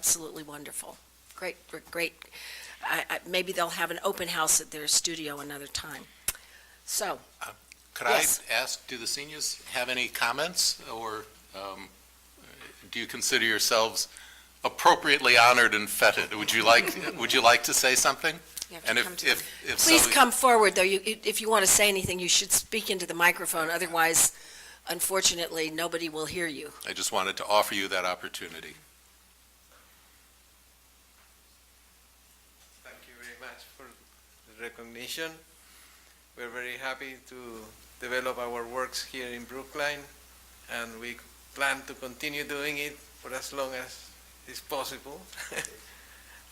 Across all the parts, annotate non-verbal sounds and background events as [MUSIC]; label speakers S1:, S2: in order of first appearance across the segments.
S1: absolutely wonderful. Great, great. I, I, maybe they'll have an open house at their studio another time. So,
S2: Could I
S1: Yes.
S2: ask, do the seniors have any comments, or um, do you consider yourselves appropriately honored and feted? Would you
S1: [LAUGHS]
S2: like, would you like to say something?
S1: you have
S2: And
S1: to come
S2: if,
S1: to.
S2: if, if so...
S1: Please come forward, though, you, if you want to say anything, you should speak into the microphone, otherwise, unfortunately, nobody will hear you.
S2: I just wanted to offer you that opportunity.
S3: Thank you very much for the recognition. We're very happy to develop our works here in Brookline, and we plan to continue doing it for as long as is possible. [LAUGHS]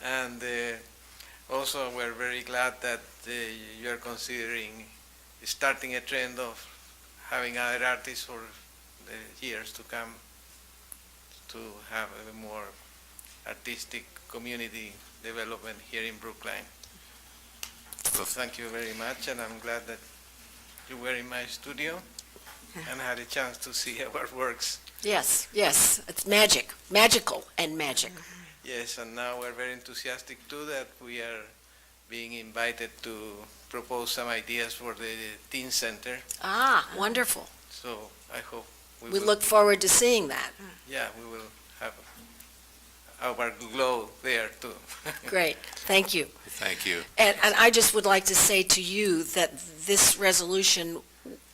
S3: and uh, also, we're very glad that uh, you're considering starting a trend of having other artists for the years to come to have a more artistic community development here in Brookline. So thank you very much, and I'm glad that you were in my
S1: [LAUGHS]
S3: studio and had a chance to see our works.
S1: Yes, yes, it's magic, magical and magic.
S3: Yes, and now we're very enthusiastic too that we are being invited to propose some ideas for the teen center.
S1: Ah, wonderful.
S3: So I hope we,
S1: We
S3: will,
S1: look forward to seeing that.
S3: yeah we will have our glow there too.
S1: Great, thank you.
S2: Thank you.
S1: And, and I just would like to say to you that this resolution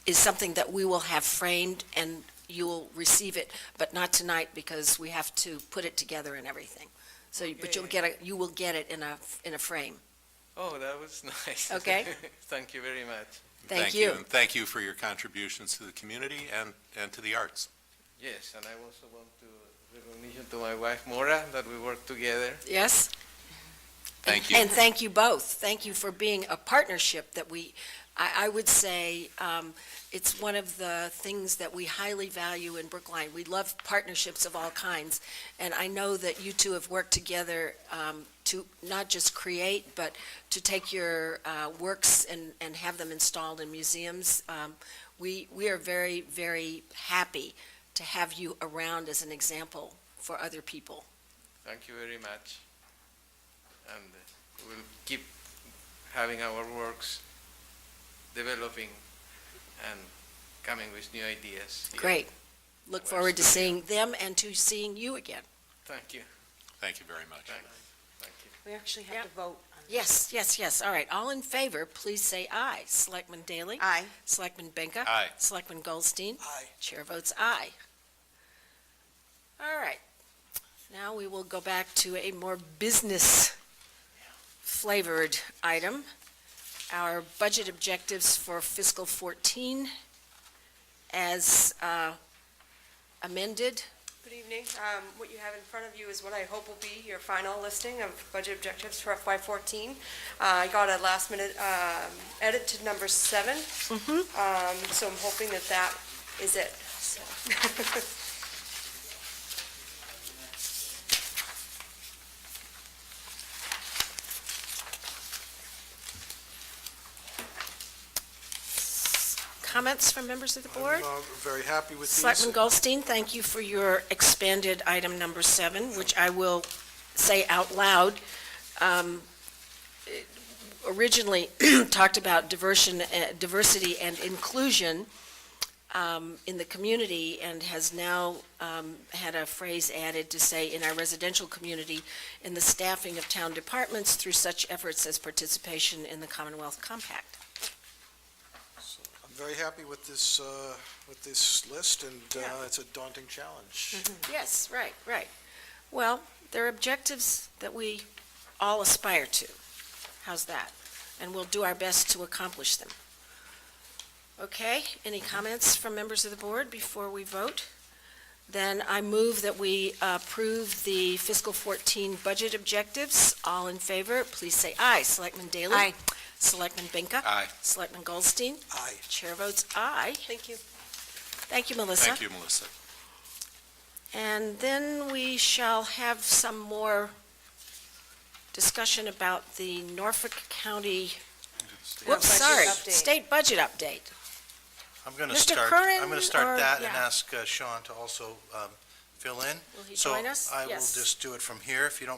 S1: is something that we will have framed and you will receive it, but not tonight because we have to put it together and everything. So, but you'll get, a you will get it in a, in a frame.
S3: [LAUGHS] oh, that was [LAUGHS] nice.
S1: Okay.
S3: thank you very much.
S1: Thank you.
S2: And thank you for your contributions to the community and, and to the arts.
S3: Yes, and I also want to recognition to my wife Mora that we work together.
S1: Yes?
S2: Thank you.
S1: And thank you both. Thank you for being a partnership that we, I, I would say, um, it's one of the things that we highly value in Brookline. We love partnerships of all kinds, and I know that you two have worked together um, to not just create, but to take your uh, works and, and have them installed in museums. Um, We, we are very, very happy to have you around as an example for other people.
S3: Thank you very much. And uh, we'll keep having our works developing and coming with new ideas. here.
S1: Great. Look
S3: Where's
S1: forward to
S3: the-
S1: seeing them and to seeing you again.
S3: Thank you.
S2: Thank you very much.
S3: Thank you. Thank you.
S4: We actually
S1: Yeah.
S4: have to vote. on this.
S1: Yes, yes, yes. All right. All in favor, please say aye. Selectman Daley?
S4: Aye.
S1: Selectman Benka?
S2: Aye.
S1: Selectman Goldstein? Aye. Chair votes aye. All right. Now we will go back to a more business flavored item. Our budget objectives for fiscal 14 as uh, amended.
S5: Good evening. Um, What you have in front of you is what I hope will be your final listing of budget objectives for FY14. Uh, I got a last-minute edit to number 7 Um, so I'm hoping that that is it, so. [LAUGHS]
S1: Comments from members of the board?
S6: I'm uh, very happy with these.
S1: Selectman Goldstein, thank you for your expanded item number seven, which I will say out loud. Um, it Originally [CLEARS THROAT] talked about diversion, uh, diversity and inclusion um, in the community and has now um, had a phrase added to say, in our residential community, in the staffing of town departments through such efforts as participation in the Commonwealth Compact.
S6: I'm very happy with this, uh, with this list, and uh, it's a daunting challenge.
S1: Mm-hmm. Yes, right, right. Well, there are objectives that we all aspire to. How's that? And we'll do our best to accomplish them. Okay, any comments from members of the board before we vote? Then I move that we approve the fiscal 14 budget objectives. All in favor, please say aye. Selectman Daley?
S4: Aye.
S1: Selectman Benka?
S2: Aye.
S1: Selectman Goldstein?
S6: Aye.
S1: Chair votes aye.
S5: Thank you.
S1: Thank you, Melissa.
S2: Thank you, Melissa.
S1: And then we shall have some more discussion about the Norfolk County, whoops,
S5: budget
S1: sorry,
S5: update.
S1: state budget update.
S7: I'm going to
S1: Mr.
S7: start,
S1: Curran
S7: I'm going to
S1: or-
S7: start that and
S1: yeah.
S7: ask uh, Sean to also um,
S6: fill in.
S8: Will he join us?
S6: So I will
S8: Yes.
S6: just do it from here, if you don't